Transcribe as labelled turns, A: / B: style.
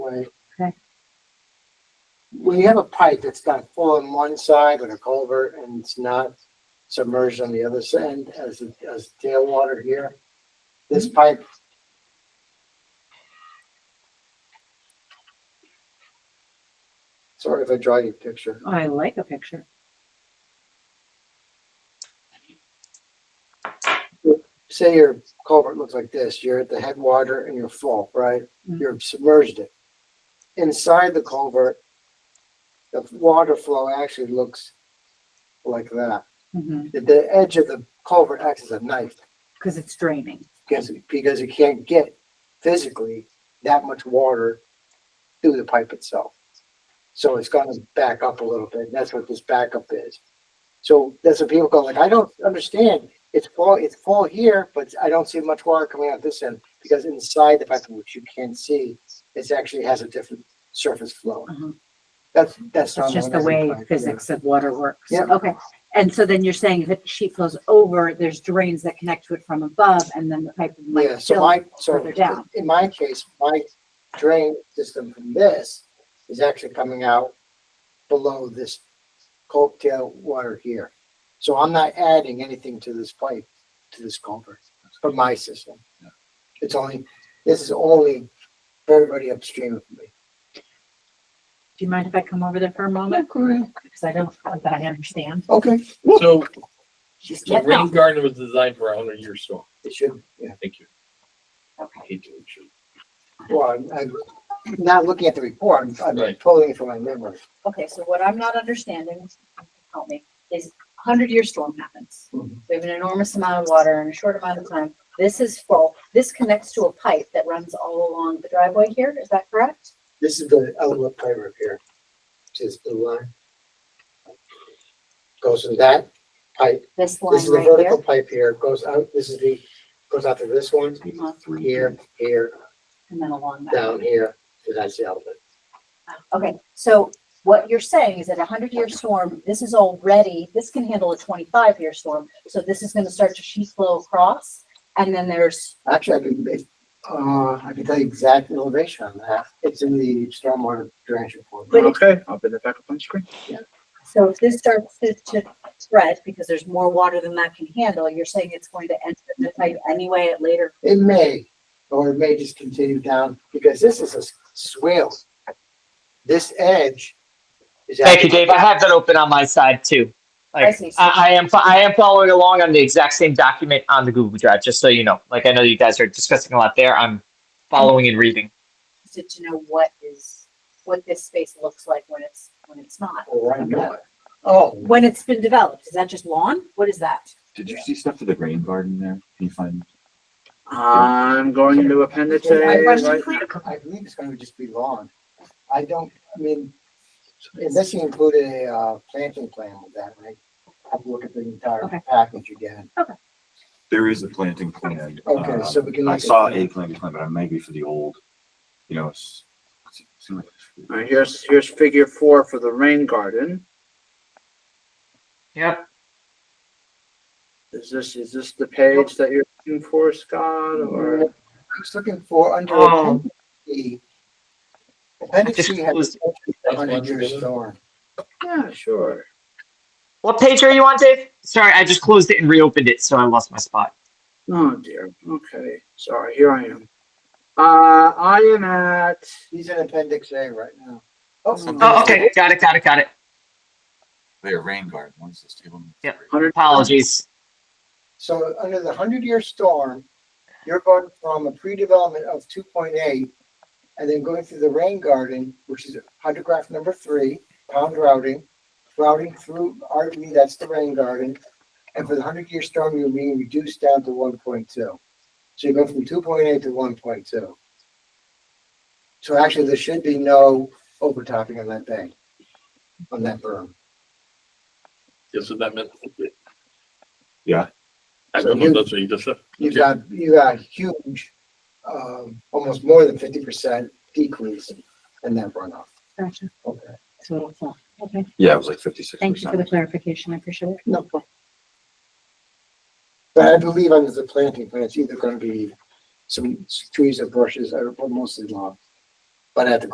A: right?
B: Okay.
A: When you have a pipe that's got full on one side with a culvert and it's not submerged on the other side as, as tailwater here, this pipe. Sorry if I draw you a picture.
B: I like a picture.
A: Say your culvert looks like this, you're at the headwater and you're full, right?
B: Mhm.
A: You've submerged it. Inside the culvert, the water flow actually looks like that.
B: Mm-hmm.
A: the, the edge of the culvert acts as a knife
B: Cause it's draining.
A: because, because you can't get physically that much water through the pipe itself. So it's gonna back up a little bit. and That's what this backup is. So that's what people go like, I don't understand. It's full, it's full here, but I don't see much water coming out this end because inside the pipe, which you can't see, it actually has a different surface flow.
B: Uh-huh.
A: That's, that's. not
B: It's just the
A: an
B: way
A: amazing pipe, yeah.
B: physics of water works.
A: Yeah.
B: Okay. And so then you're saying if it sheet flows over, there's drains that connect to it from above and then the pipe
A: Yeah,
B: might
A: so
B: fill.
A: my, so
B: further down.
A: in my case, my drain system from this is actually coming out below this tail water here. So I'm not adding anything to this pipe, to this culvert, for my system. It's only, this is only everybody upstream of me.
B: Do you mind if I come over there for a moment? Cause I don't, think I understand.
A: Okay,
C: So
B: She's
C: the
B: getting
C: rain
B: off.
C: garden was designed for a hundred year storm.
A: it should, yeah.
C: Thank you.
B: Okay.
C: Hate to intrude.
A: Well, I'm- I'm not looking at the report, I'm- I'm
C: Right.
A: pulling it from my memory.
B: Okay, so what I'm not understanding, help me, is hundred year storm happens.
A: Mhm.
B: We have an enormous amount of water in a short amount of time. This is full. This connects to a pipe that runs all along the driveway here. Is that correct?
A: This is the outlet pipe right here, which is the line. Goes in that pipe,
B: This
A: this
B: line
A: is the
B: right
A: vertical
B: here.
A: pipe here, goes out, this is the, goes out to this one,
B: Uh-huh.
A: here, here,
B: And then along that.
A: down here, and that's the outlet.
B: Okay, so what you're saying is that a hundred year storm, this is already, this can handle a twenty-five year storm. So this is gonna start to sheet flow across and then there's,
A: Actually, I can, it- uh, I can tell you exact elevation on that, it's in the stormwater drainage report.
B: But it-
D: Okay, I'll bring it back up on screen.
B: so if this starts to, to spread because there's more water than that can handle, you're saying it's going to enter the pipe anyway at later.
A: It may, or it may just continue down, because this is a s- swale. This edge is.
E: Thank you,
A: actually-
E: Dave. I have that open on my side too.
B: I
E: Like,
B: see.
E: I, I am, fo- I am following along on the exact same document on the Google Drive, just so you know. Like, I know you guys are discussing a lot there. I'm following and reading.
B: Interested to know what is, what this space looks like when it's, when it's not.
A: Right now. Oh,
B: When it's been developed, is that just lawn? What is that?
F: Did you see stuff to the rain garden there? Can you find?
D: I'm going to appendix A
A: I-
D: right now.
A: I believe it's gonna just be lawn. I don't, I mean, unless you include a, uh, planting plan with that, right? Have to look at the entire
B: Okay.
A: package again.
F: There is a planting plan.
A: Okay,
F: Um,
A: so we can
F: I
A: look at
F: saw
A: that.
F: a planting plan, but it might be for the old, you know, it's. it's- it's like-
D: All right, here's, here's figure four for the rain garden.
E: Yep.
D: Is this, is this the page that you're looking for, Scott,
A: I
D: or?
A: was looking for under
E: Oh.
A: appendix E. Appendix
E: Just
A: E had
E: closed
A: a hundred year storm.
D: Yeah, sure.
E: What page are you on, Dave? Sorry, I just closed it and reopened it, so I lost my spot.
D: Oh dear, okay, sorry, here I am. Uh, I am at,
A: He's in appendix A right now.
E: Oh, okay. Got it, got it, got it.
F: There, rain garden, one's this table.
E: Yep.
D: hundred,
E: Apologies.
A: So under the hundred year storm, you're going from a pre-development of two point eight and then going through the rain garden, which is hydrograph number three, pound routing, routing through RV, that's the rain garden. And for the hundred year storm, you're being reduced down to one point two. So you go from two point eight to one point two. So actually, there should be no overtopping on that bank, on that berm.
C: That's what that meant.
F: Yeah.
C: I don't know, that's what you just said.
A: you got, you got huge, um, almost more than fifty percent decrease in that runoff.
B: Gotcha.
A: Okay.
B: So it's not. Okay,
F: Yeah, it was like fifty-six percent.
B: thank you for the clarification. I appreciate it.
A: No problem. But I believe under the planting plan, it's either gonna be some trees or bushes, or mostly lawn. But I have to